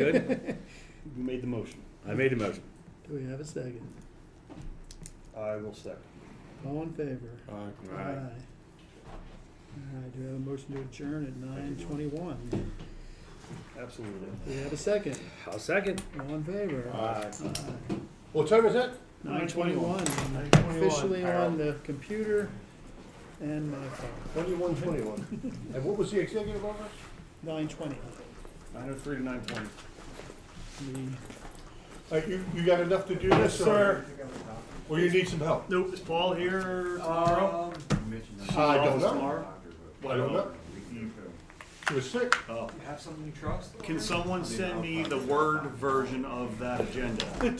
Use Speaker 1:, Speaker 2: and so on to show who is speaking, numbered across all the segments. Speaker 1: Good?
Speaker 2: You made the motion.
Speaker 1: I made a motion.
Speaker 3: Do we have a second?
Speaker 2: I will second.
Speaker 3: All in favor?
Speaker 4: Aye.
Speaker 1: All right.
Speaker 3: All right, do we have a motion to adjourn at nine twenty-one?
Speaker 2: Absolutely.
Speaker 3: Do we have a second?
Speaker 1: I'll second.
Speaker 3: All in favor?
Speaker 4: Aye. What time is it?
Speaker 3: Nine twenty-one,
Speaker 4: 9:21,
Speaker 3: officially on
Speaker 4: Harold.
Speaker 3: the computer and my phone,
Speaker 4: Twenty-one, twenty-one. And what was the executive office?
Speaker 3: nine twenty.
Speaker 2: Nine oh three to nine twenty.
Speaker 4: Uh, you, you got enough to do this, or, or you need some help?
Speaker 2: Nope, is Paul here
Speaker 5: Tomorrow?
Speaker 4: I don't know.
Speaker 2: Tomorrow?
Speaker 4: I don't know. She was sick.
Speaker 2: Oh.
Speaker 5: You have something you trust?
Speaker 2: Can someone send me the Word version of that agenda? The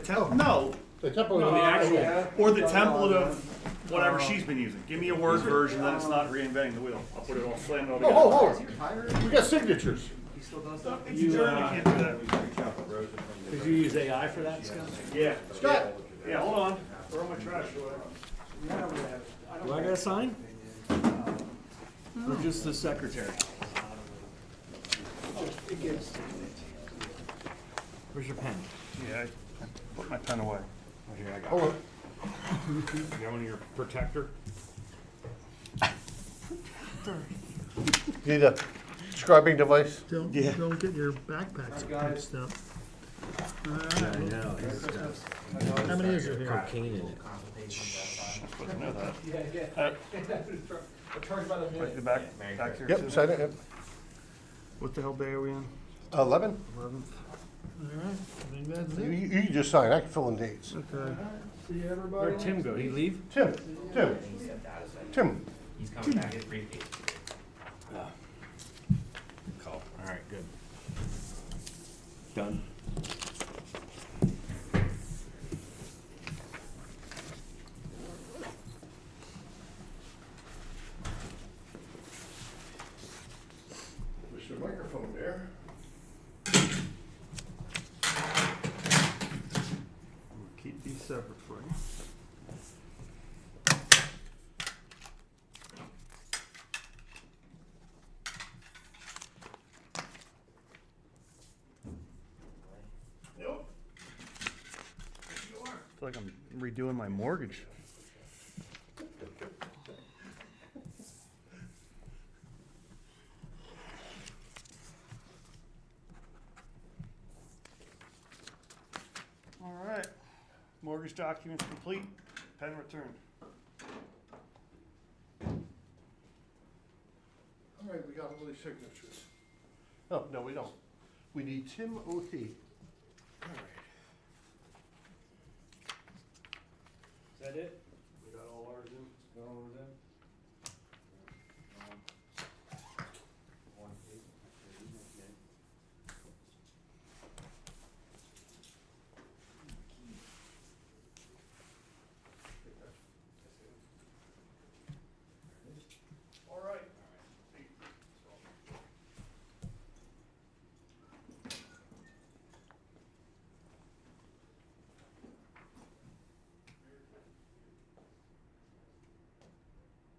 Speaker 2: temp, no,
Speaker 4: The temple.
Speaker 2: No, the actual-
Speaker 5: Yeah.
Speaker 2: or the template of whatever she's been using. Give me a Word version, then it's not reinventing the wheel. I'll put it all slammed all
Speaker 4: Oh, hold,
Speaker 2: together.
Speaker 4: hold.
Speaker 5: Hired?
Speaker 4: We got signatures.
Speaker 5: He still does that?
Speaker 2: It's adjourned,
Speaker 4: uh,
Speaker 2: I can't do that.
Speaker 1: Did you use AI for that, Scott?
Speaker 2: Yeah,
Speaker 4: Scott,
Speaker 2: yeah, hold on. Where are my trash?
Speaker 5: Yeah, I would have. I don't
Speaker 1: Do I gotta sign?
Speaker 2: Or just the secretary?
Speaker 5: think it gives.
Speaker 1: Where's your pen?
Speaker 2: Yeah, I put my pen away.
Speaker 1: Here, I
Speaker 4: hold on.
Speaker 1: You got one of your protector?
Speaker 4: Need a uh, scribing device?
Speaker 3: Don't,
Speaker 2: Yeah.
Speaker 3: don't get your backpacks
Speaker 5: I got it.
Speaker 3: mixed up. All right,
Speaker 1: know.
Speaker 3: how many is it here?
Speaker 1: Cocaine in it.
Speaker 2: Supposed to know that.
Speaker 5: Yeah, yeah. I charge by the minute.
Speaker 2: The back, back here.
Speaker 4: Yep,
Speaker 2: too.
Speaker 4: sign it, yep.
Speaker 2: What the hell day are we on?
Speaker 4: Eleven?
Speaker 3: All right, I think that's
Speaker 4: You,
Speaker 3: it.
Speaker 4: you can just sign, I can fill in dates.
Speaker 3: Okay.
Speaker 5: See everybody?
Speaker 1: Where'd Tim go? Did he leave?
Speaker 4: Tim, Tim, Tim.
Speaker 6: He's coming back, his briefcase.
Speaker 1: Call. All right, good. Done.
Speaker 4: There's your microphone there.
Speaker 2: We'll Keep these separate for you.
Speaker 4: Nope.
Speaker 2: I feel like I'm redoing my mortgage. All right, mortgage documents complete, pen returned.
Speaker 4: All right, we got all these signatures. No, Oh, no, we don't. We need Tim O'Hee.
Speaker 1: Is that it? Um,